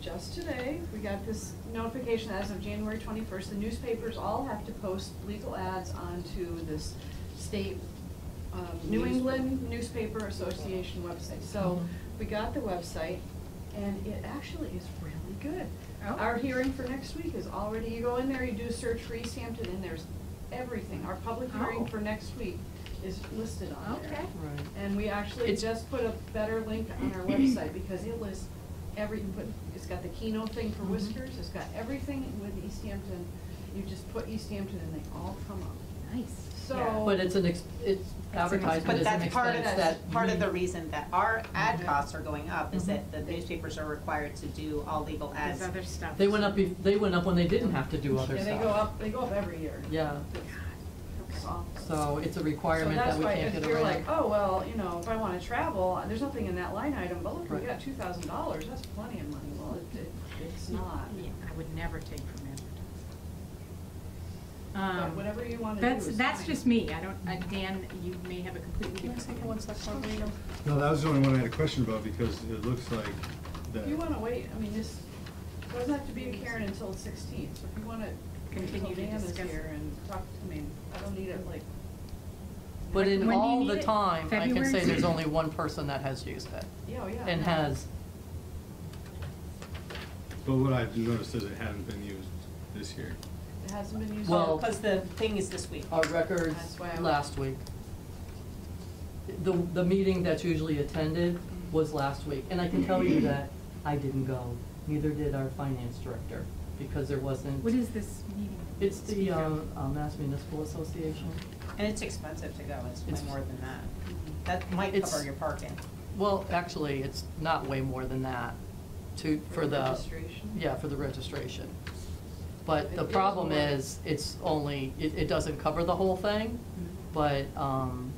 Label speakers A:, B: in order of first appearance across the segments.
A: just today, we got this notification as of January twenty-first, the newspapers all have to post legal ads onto this state, um, New England Newspaper Association website. So
B: Mm-hmm.
A: we got the website and it actually is really good.
B: Oh.
A: Our hearing for next week is already, you go in there, you do search for East Hampton and there's everything. Our public
B: Oh.
A: hearing for next week is listed on there.
B: Okay.
C: Right.
A: And we actually
C: It's-
A: just put a better link on our website because it lists every, you put- it's got the keynote thing for
B: Mm-hmm.
C: Mhm.
A: Whiskers, it's got everything with East Hampton. You just put East Hampton and they all come up.
B: Nice.
A: So-
C: But it's an, ex- it's advertised as
D: But
C: an
D: that's part of,
C: expense
D: that's
C: that.
D: part of the
C: we-
D: reason that our ad
C: Mhm.
D: costs are going up, is
C: Mhm.
D: that the newspapers are required to do all legal ads.
B: There's other stuff.
C: They went up, bef- they went up when they didn't have to do other
A: Yeah,
C: stuff.
A: they go up, they go up every year.
C: Yeah,
A: It's awful.
C: so it's a requirement that we can't get
A: So that's why if you're like,
C: around.
A: oh, well, you know, if I wanna travel, there's nothing in that line item, but look, we
C: Right.
A: got two thousand dollars, that's plenty of money. Well, it, it, it's not.
B: Yeah, I would never take from advertising.
A: But
B: Um,
A: whatever you wanna do
B: That's,
A: is
B: that's
A: fine.
B: just me, I don't, uh, Dan, you may have a completely different.
E: No, that was the only one I had a question about because it looks like that.
A: You wanna wait, I mean, this doesn't have to be a Karen until sixteenth, so if you wanna
B: Continue
A: continue
B: to
A: Dan is
B: discuss.
A: here and talk, I mean, I don't need it like.
C: But in
B: When do you
C: all
B: need
C: the
B: it?
C: time, I can say
B: February?
C: there's only one person that has used it
A: Yeah, oh, yeah.
C: and has.
E: But what I've noticed is it hadn't been used this year.
A: It hasn't been used.
C: Well-
D: Because the thing is this week.
C: Our records
A: That's why I was-
C: last week. The, the meeting that's usually attended was last week, and I can tell you that I didn't go, neither did our finance director, because there wasn't.
B: What is this meeting?
C: It's the,
B: Speak up.
C: um, uh, Mass Municipal Association.
D: And it's expensive to go, it's
C: It's- Mhm.
D: way more than that. That might
C: It's-
D: cover your parking.
C: Well, actually, it's not way more than that to, for the.
A: Registration.
C: Yeah, for the registration. But
A: It
C: the
A: is
C: problem
A: more.
C: is, it's only, it, it doesn't cover the whole thing,
B: Mm-hmm.
C: but, um,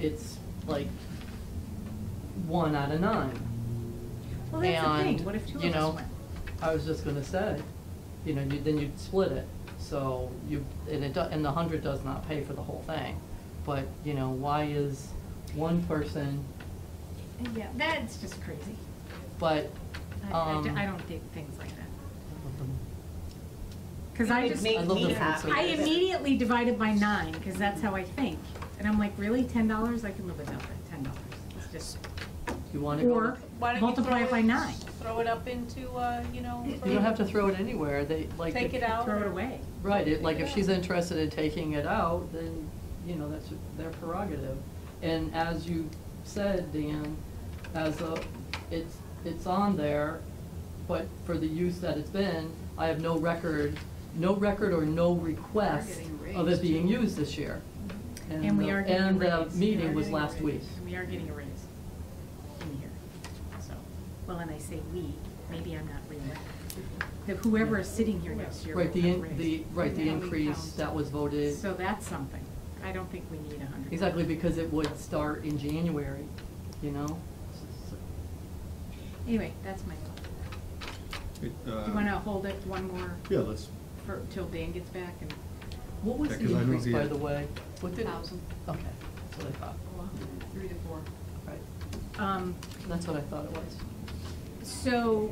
C: it's like one out of nine.
B: Well, that's the
C: And,
B: thing, what if two
C: you
B: of
C: know,
B: us went?
C: I was just gonna say, you know, you, then you'd split it, so you, and it, do- and the hundred does not pay for the whole thing. But, you know, why is one person,
B: Yeah, that's just crazy.
C: but,
B: I- I, d-
C: um.
B: I don't dig things like that. Cause I
D: It
B: just,
D: makes
C: I love
D: me
C: the food
D: happy.
C: service.
B: I immediately divided by nine, cause that's how I think. And I'm like, really, ten dollars? I can live without that, ten dollars. It's just,
C: You wanna go?
B: or
F: Why don't you
B: multiply
F: throw
B: it by
F: it-
B: nine,
F: Throw it up into, uh, you know,
C: You don't have to throw it anywhere, they, like.
F: take
C: if-
F: it out.
B: throw it away.
C: Right, it, like, if she's interested in taking it out, then, you know, that's their prerogative. And as you said, Dan, as a, it's, it's on there, but for the use that it's been, I have no record, no record or no request
A: getting
C: of
A: raised,
C: it being
A: too.
C: used this year.
B: And we
C: the-
B: are getting a
C: And
B: raise.
C: the
B: We are
C: meeting was
B: getting a
C: last
B: raise.
C: week.
B: And we are getting a raise in here, so, well, and I say we, maybe I'm not really. The whoever is sitting here next year will
C: Right,
B: have
C: the,
B: a
C: in- the,
B: raise.
C: right, the
A: Yeah, we
C: increase
A: count.
C: that was voted,
B: So that's something. I don't think we need a hundred.
C: exactly, because it would start in January, you know?
B: Anyway, that's my thought.
E: It,
B: Do
E: uh,
B: you wanna hold it one more
E: Yeah, let's,
B: for, till Dan gets back and?
C: What was
E: Yeah,
C: the
E: 'cause I know
C: increase,
E: the-
C: by the way? What did?
A: Thousand.
C: Okay, that's what I thought.
A: Oh, Well, Three to four.
C: Right,
B: Um,
C: that's what I thought it was.
A: Mm-hmm.
B: so,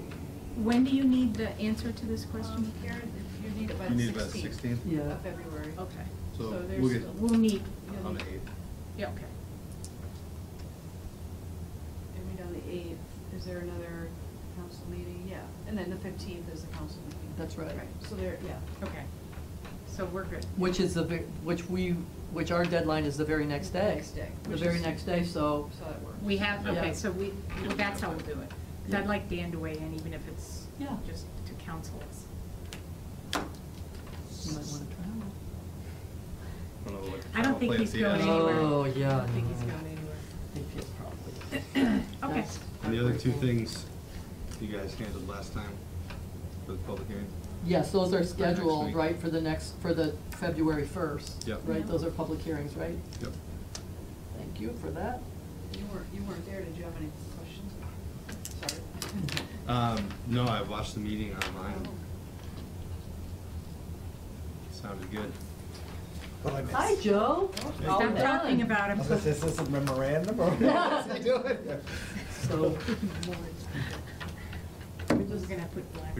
B: when do you need the answer to this question?
A: Um, Karen, if you need it by
E: you
A: the
E: need about
A: sixteenth
E: sixteen,
C: Yeah. Oh.
A: of February.
B: Okay,
A: so
E: so
A: there's
E: we'll get
A: still-
B: we'll need,
A: You'll
E: on
A: need-
E: the eighth.
B: yeah, okay.
A: And we know the eighth, is there another council meeting? Yeah, and then the fifteenth is the council meeting.
C: That's right.
A: So there, yeah.
B: Okay, so we're good.
C: Which is the, ve- which we, which our deadline is the very next day.
A: Next day,
C: The
A: which
C: very
A: is-
C: next day, so,
A: So that works.
B: We have, okay,
C: Yeah.
B: so we, well, that's how we'll do it. 'Cause I'd like Dan to weigh in, even if it's
C: Yeah.
B: just to counsel us.
C: you might wanna travel.
E: I don't know what-
B: I don't think
E: play at
B: he's
E: the
B: going
E: end.
B: anywhere.
C: Oh, yeah.
B: I don't think he's
C: no.
B: going anywhere.
C: I think he's probably.
B: Okay,
C: That's-
E: And the other two things you guys handled last time for the public hearing?
C: Yes, those are scheduled,
E: week.
C: right, for the next, for the February first.
E: Yep.
C: Right, those are public hearings, right?
E: Yep.
C: Thank you for that.
A: You weren't, you weren't there, did you have any questions? Sorry.
E: Um, no, I watched the meeting online.
B: Oh.
E: Sounded good.
G: What I missed.
C: Hi, Joe.
E: All
B: stop talking about
G: I
B: him.
G: was like, Is this a memorandum or what is he doing?
C: So,
B: Lord.
C: we
B: We're gonna put black.